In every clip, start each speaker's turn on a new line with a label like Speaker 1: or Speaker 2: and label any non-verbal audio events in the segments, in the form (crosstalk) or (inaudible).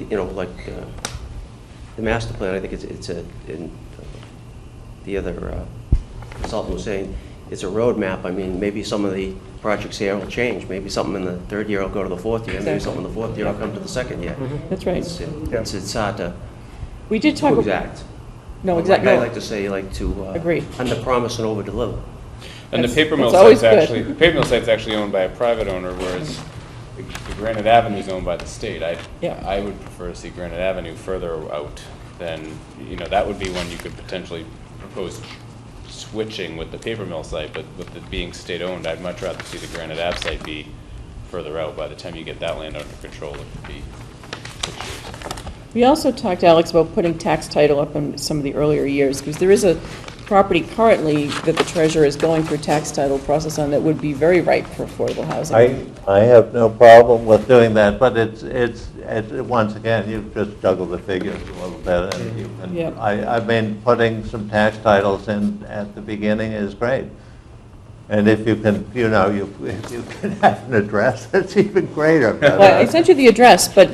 Speaker 1: you know, like, uh, the master plan, I think it's, it's a, in, the other uh, consultant was saying, it's a roadmap, I mean, maybe some of the projects here will change, maybe something in the third year will go to the fourth year, maybe
Speaker 2: Exactly.
Speaker 1: something in the fourth year will come to the second year.
Speaker 2: That's
Speaker 1: It's,
Speaker 2: right.
Speaker 1: it's, it's hard to,
Speaker 2: We did talk.
Speaker 1: too
Speaker 2: ab-
Speaker 1: exact.
Speaker 2: No,
Speaker 1: Like
Speaker 2: exactly.
Speaker 1: I like to say, like to. uh,
Speaker 2: Agreed.
Speaker 1: Under-promise and over-deliver.
Speaker 3: And the
Speaker 2: That's-
Speaker 3: paper mill
Speaker 2: that's always
Speaker 3: site's
Speaker 2: good.
Speaker 3: actually, the paper mill site's actually owned by a private owner, whereas the the Granite Avenue's owned by the state. I,
Speaker 2: Yeah.
Speaker 3: I would prefer to see Granite Avenue further out than, you know, that would be one you could potentially propose switching with the paper mill site, but with it being state-owned, I'd much rather see the Granite Ave site be further out. By the time you get that land under control, it could be,
Speaker 2: We also talked, Alex, about putting tax title up in some of the earlier years, because there is a property currently that the treasurer is going through tax title process on that would be very ripe for affordable housing.
Speaker 4: I, I have no problem with doing that, but it's, it's, it's, once again, you just juggle the figures a little bit. and you can-
Speaker 2: Mm-hmm. Yep.
Speaker 4: I, I mean, putting some tax titles in at the beginning is great. And if you can, you know, you, (laughs) if you can have an address, (laughs) that's even greater. but,
Speaker 2: Well, I
Speaker 4: uh,
Speaker 2: sent you the address, but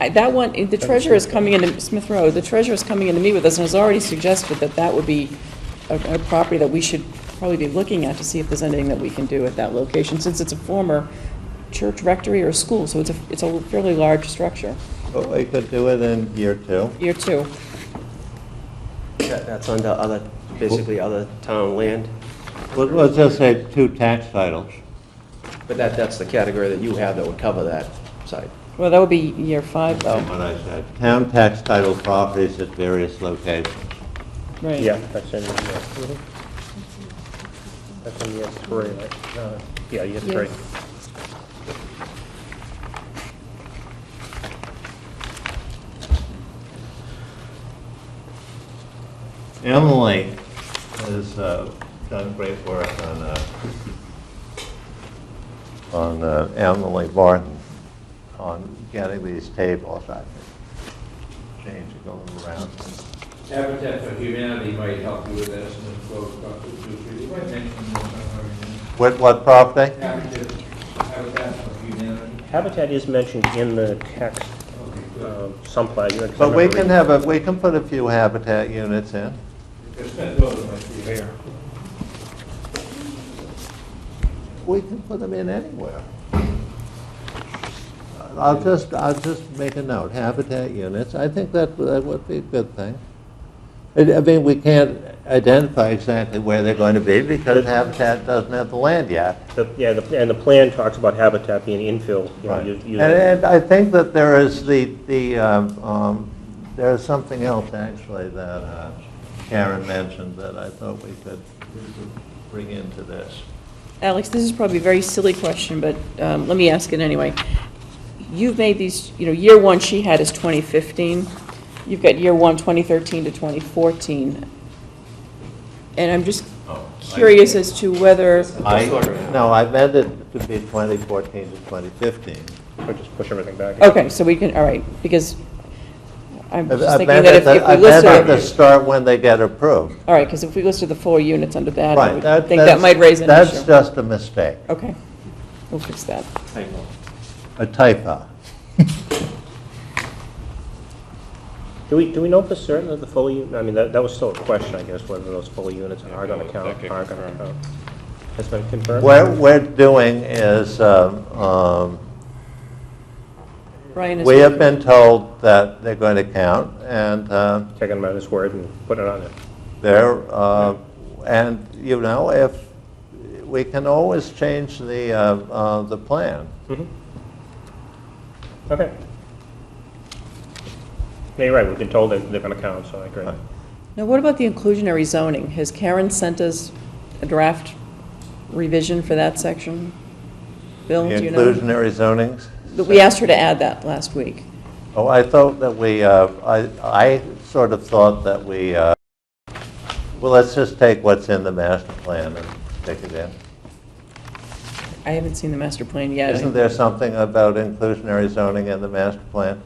Speaker 2: I- that one, the treasurer is coming into Smith Road, the treasurer is coming in to meet with us, and has already suggested that that would be a, a property that we should probably be looking at to see if there's anything that we can do at that location, since it's a former church rectory or school, so it's a, it's a fairly large structure.
Speaker 4: But we could do it in year two.
Speaker 2: Year two.
Speaker 1: That- That's under other, basically other town land,
Speaker 4: Let- Let's just say two tax titles.
Speaker 1: but that, that's the category that you have that would cover that site.
Speaker 2: Well, that would be year five,
Speaker 4: That's
Speaker 2: though,
Speaker 4: what I said. Town tax title properties at various locations.
Speaker 2: right?
Speaker 5: Yeah, that's in, yeah. That's in year three, right? No, Yeah, year three.
Speaker 4: Emily has uh, done great work on, uh, on uh, Emily Barton, on getting these tables, I think, changing them around.
Speaker 6: Habitat for Humanity might help you with that, and then go talk to Duke. You might mention this somewhere in
Speaker 4: With what property?
Speaker 6: there. Habitat, Habitat for Humanity.
Speaker 5: Habitat is mentioned in the text
Speaker 6: Okay, good.
Speaker 5: um, someplace. I
Speaker 4: But we
Speaker 5: remember
Speaker 4: can
Speaker 5: reading.
Speaker 4: have, a we can put a few habitat units in.
Speaker 6: Because that building might be there.
Speaker 4: We can put them in anywhere. I'll just, I'll just make a note, habitat units, I think that, that would be a good thing. I I mean, we can't identify exactly where they're going to be because habitat doesn't have the land yet.
Speaker 5: The- Yeah, the- and the plan talks about habitat being infill, you know,
Speaker 4: Right.
Speaker 5: you-
Speaker 4: And,
Speaker 5: you-
Speaker 4: and I think that there is the, the, um, um, there is something else actually that uh, Karen mentioned that I thought we could we could bring into this.
Speaker 2: Alex, this is probably a very silly question, but um, let me ask it anyway. You've made these, you know, year one she had is 2015. You've got year one, 2013 to 2014. And I'm just curious as to whether,
Speaker 4: I,
Speaker 1: Disorder.
Speaker 4: no, I meant it to be 2014 to 2015.
Speaker 5: or just push everything back.
Speaker 4: Oh.
Speaker 2: okay, so we can, all right, because I'm
Speaker 4: I
Speaker 2: just
Speaker 4: I
Speaker 2: thinking
Speaker 4: meant
Speaker 2: that
Speaker 4: it
Speaker 2: if
Speaker 4: to-
Speaker 2: if
Speaker 4: I
Speaker 2: we
Speaker 4: meant it to
Speaker 2: listed,
Speaker 4: start when they get approved.
Speaker 2: all right, because if we listed the four units under that, I
Speaker 4: Right.
Speaker 2: would think that
Speaker 4: that's-
Speaker 2: might raise an
Speaker 4: That's
Speaker 2: issue.
Speaker 4: just a mistake,
Speaker 2: Okay, we'll fix that.
Speaker 4: a typo.
Speaker 5: Do we, do we know for certain that the full, u- I mean, that, that was still a question, I guess, whether those full units are gonna
Speaker 3: that
Speaker 5: count,
Speaker 3: could
Speaker 5: are gonna
Speaker 3: confirm.
Speaker 5: count. Has been confirmed?
Speaker 4: What we're doing is, um, um,
Speaker 2: Brian is.
Speaker 4: we have been told that they're going to count, and um,
Speaker 5: Taking him at his word and putting it on there.
Speaker 4: there, uh, and, you know, if, we can always change the, uh, uh, the plan.
Speaker 5: Okay. Yeah, you're right, we've been told that they're gonna count, so I agree.
Speaker 4: Right.
Speaker 2: Now, what about the inclusionary zoning? Has Karen sent us a draft revision for that section? Bill,
Speaker 4: The
Speaker 2: do you know?
Speaker 4: Inclusionary zonings?
Speaker 2: That We asked her to add that last week.
Speaker 4: Oh, I thought that we, uh, I, I sort of thought that we, uh, well, let's just take what's in the master plan and stick it in.
Speaker 2: I haven't seen the master plan yet.
Speaker 4: Isn't there something about inclusionary zoning in the master plan?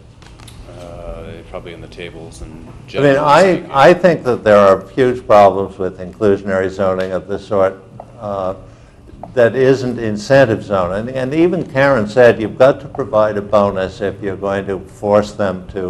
Speaker 3: uh, probably in the tables and.
Speaker 4: I mean,
Speaker 3: generally speaking.
Speaker 4: I, I think that there are huge problems with inclusionary zoning of this sort. Uh, that isn't incentive zoning. And even Karen said, you've got to provide a bonus if you're going to force them to